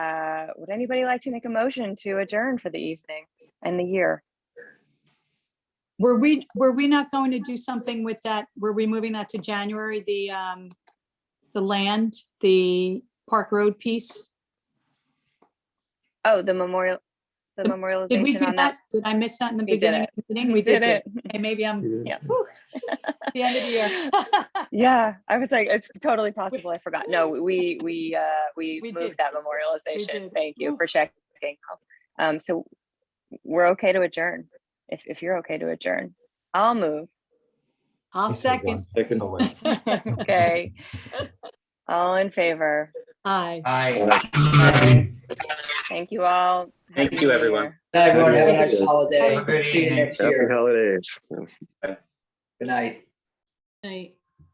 uh, would anybody like to make a motion to adjourn for the evening and the year? Were we, were we not going to do something with that? Were we moving that to January, the, um, the land, the Park Road piece? Oh, the memorial, the Did- Did we memorialization do on that? that. Did I miss that in the We did beginning? it. of the meeting? We did it. it. Okay, maybe I'm Yeah. the end of the year. Yeah, I was like, it's totally possible. I forgot. No, we, we, uh, we We moved did. that memorialization. did. Thank you for Oof. checking. Um, so we're okay to adjourn, if, if you're okay to adjourn. I'll move. I'll second. Second. away. Okay. All in favor. Aye. Thank you all. Thank Happy you, New everyone. Year. Night, everyone. Have a Have a nice good holiday. Have a good See you evening. next Happy year. holidays. Good night. Aye.